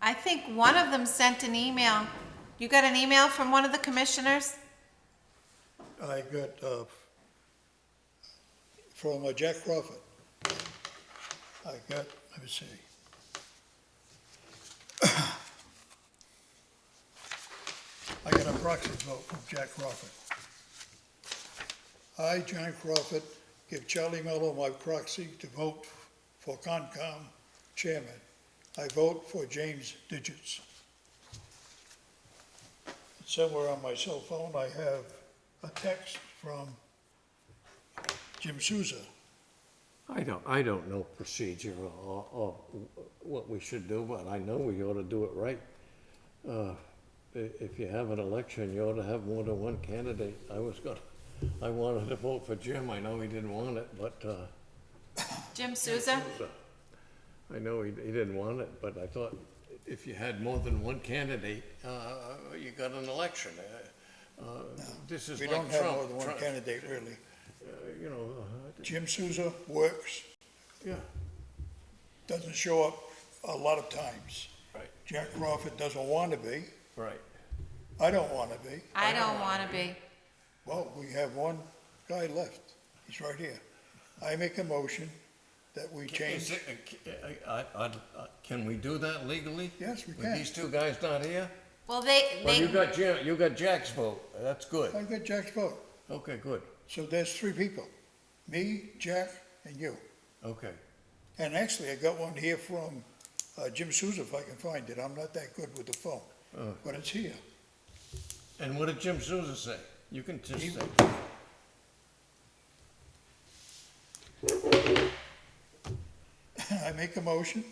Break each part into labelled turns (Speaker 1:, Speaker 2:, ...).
Speaker 1: I think one of them sent an email. You got an email from one of the commissioners?
Speaker 2: I got, uh, from uh, Jack Crawford. I got, let me see. I got a proxy vote from Jack Crawford. I, John Crawford, give Charlie Mello my proxy to vote for Concom chairman. I vote for James Digits. Somewhere on my cell phone, I have a text from Jim Souza.
Speaker 3: I don't, I don't know procedure or, or what we should do, but I know we ought to do it right. Uh, i- If you have an election, you ought to have more than one candidate. I was gonna, I wanted to vote for Jim, I know he didn't want it, but, uh,
Speaker 1: Jim Souza?
Speaker 3: I know he, he didn't want it, but I thought if you had more than one candidate, uh, you got an election. Uh, uh, This is
Speaker 2: We
Speaker 3: like
Speaker 2: don't
Speaker 3: Trump.
Speaker 2: have more than one
Speaker 3: Trump,
Speaker 2: candidate, really.
Speaker 3: uh, You know, uh,
Speaker 2: Jim Souza works,
Speaker 3: yeah,
Speaker 2: doesn't show up a lot of times.
Speaker 3: right,
Speaker 2: Jack Crawford doesn't want to be.
Speaker 3: right.
Speaker 2: I don't want to be.
Speaker 1: I don't want to be.
Speaker 2: Well, we have one guy left. He's right here. I make a motion that we
Speaker 3: Is
Speaker 2: change.
Speaker 3: it- I- I- I'd- uh, Can we do that legally?
Speaker 2: Yes, we
Speaker 3: With
Speaker 2: can.
Speaker 3: these two guys not here?
Speaker 1: Well, they,
Speaker 3: Well,
Speaker 1: they,
Speaker 3: you got Jim, you got Jack's vote, that's
Speaker 2: I
Speaker 3: good.
Speaker 2: got Jack's vote.
Speaker 3: Okay, good,
Speaker 2: So there's three people, me, Jack, and you.
Speaker 3: okay.
Speaker 2: And actually, I got one here from uh, Jim Souza, if I can find it. I'm not that good with the phone,
Speaker 3: Oh.
Speaker 2: but it's here.
Speaker 3: And what did Jim Souza say? You can
Speaker 2: He-
Speaker 3: just say,
Speaker 2: I make a motion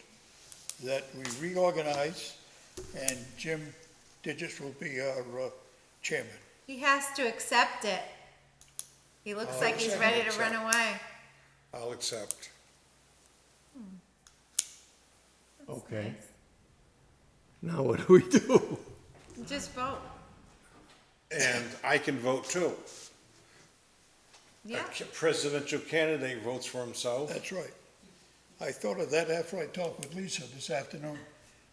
Speaker 2: that we reorganize and Jim Digits will be our uh, chairman.
Speaker 1: he has to accept it. He
Speaker 3: Oh,
Speaker 1: looks like he's ready to run away.
Speaker 4: I'll accept.
Speaker 3: okay. Now what do we do?
Speaker 1: Just vote.
Speaker 4: And I can vote too.
Speaker 1: Yeah.
Speaker 4: A ca- presidential candidate votes for himself.
Speaker 2: That's right. I thought of that after I talked with Lisa this afternoon.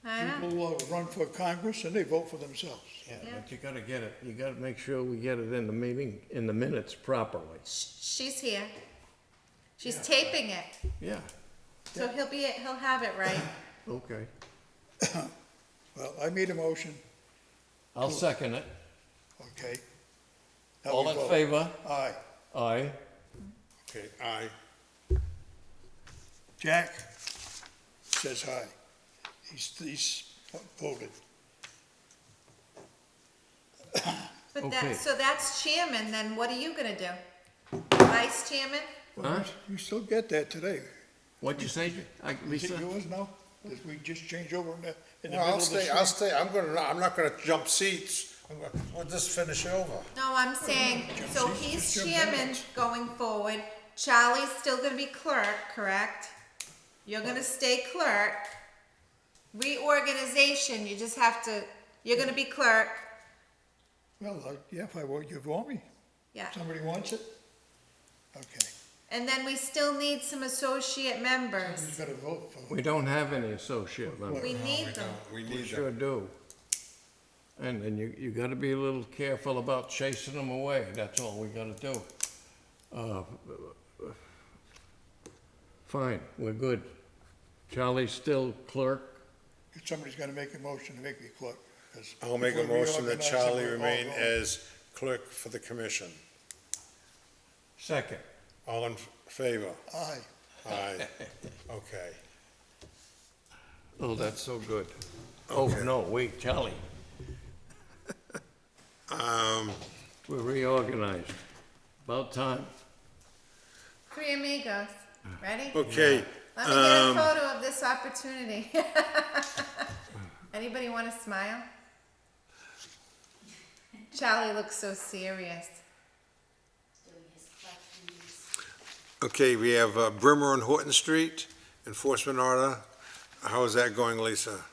Speaker 1: I know.
Speaker 2: People uh, run for Congress and they vote for themselves.
Speaker 3: Yeah,
Speaker 1: Yeah.
Speaker 3: but you gotta get it, you gotta make sure we get it in the meeting, in the minutes properly.
Speaker 1: Sh- She's here. She's taping it.
Speaker 3: Yeah,
Speaker 1: So he'll be, he'll have it right.
Speaker 3: okay.
Speaker 2: Well, I made a motion,
Speaker 3: I'll second it.
Speaker 2: okay? Now we
Speaker 3: All in
Speaker 2: vote.
Speaker 3: favor?
Speaker 2: Aye.
Speaker 3: Aye.
Speaker 4: Okay, aye.
Speaker 2: Jack says aye. He's, he's voted.
Speaker 1: But
Speaker 3: Okay.
Speaker 1: that, so that's chairman, then what are you gonna do? Vice chairman?
Speaker 3: Huh?
Speaker 2: You still get that today.
Speaker 3: What'd you say, I-
Speaker 2: Is it
Speaker 3: Lisa?
Speaker 2: yours now? Did we just change over in the, in the
Speaker 4: Well,
Speaker 2: middle
Speaker 4: I'll
Speaker 2: of the
Speaker 4: stay, I'll stay, I'm gonna, I'm not gonna jump seats. I'm gonna, we'll just finish over.
Speaker 1: No, I'm saying, so
Speaker 2: Jim,
Speaker 1: he's
Speaker 2: Jim
Speaker 1: chairman
Speaker 2: Jones.
Speaker 1: going forward, Charlie's still gonna be clerk, correct? You're gonna stay clerk. Reorganization, you just have to, you're gonna be clerk,
Speaker 2: Well, I- yeah, if I want, you want me.
Speaker 1: yeah.
Speaker 2: Somebody wants it? Okay.
Speaker 1: And then we still need some associate
Speaker 2: You
Speaker 1: members.
Speaker 2: gotta vote for
Speaker 3: We don't have any associate members.
Speaker 1: We need them.
Speaker 4: We
Speaker 3: We
Speaker 4: need
Speaker 3: sure
Speaker 4: that.
Speaker 3: do. And, and you, you gotta be a little careful about chasing them away, that's all we gotta do. Uh, Fine, we're good. Charlie's still clerk,
Speaker 2: Somebody's gonna make a motion to make me clerk. 'cause
Speaker 4: I'll make a
Speaker 2: if we
Speaker 4: motion that
Speaker 2: reorganize it,
Speaker 4: Charlie
Speaker 2: we're all
Speaker 4: remain
Speaker 2: going.
Speaker 4: as clerk for the commission.
Speaker 3: second.
Speaker 4: All in favor?
Speaker 2: Aye.
Speaker 4: Aye. Okay.
Speaker 3: Oh, that's so good. Oh,
Speaker 4: Okay.
Speaker 3: no, wait, Charlie,
Speaker 4: Um,
Speaker 3: we're reorganized. About time.
Speaker 1: Three amigos, ready?
Speaker 4: okay,
Speaker 1: Let me get a
Speaker 4: Um,
Speaker 1: photo of this opportunity. Anybody want to smile? Charlie looks so serious.
Speaker 5: doing his collecting these
Speaker 4: okay, we have uh, Brimmer and Horton Street, enforcement order. How is that going, Lisa?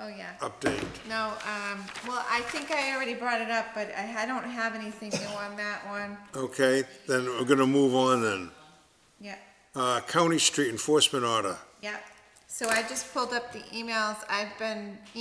Speaker 1: Oh, yeah.
Speaker 4: Update.
Speaker 1: No, um, well, I think I already brought it up, but I, I don't have anything new on that one.
Speaker 4: Okay, then we're gonna move on then.
Speaker 1: Yeah,
Speaker 4: Uh, County Street enforcement order.
Speaker 1: yeah. So I just pulled up the emails. I've been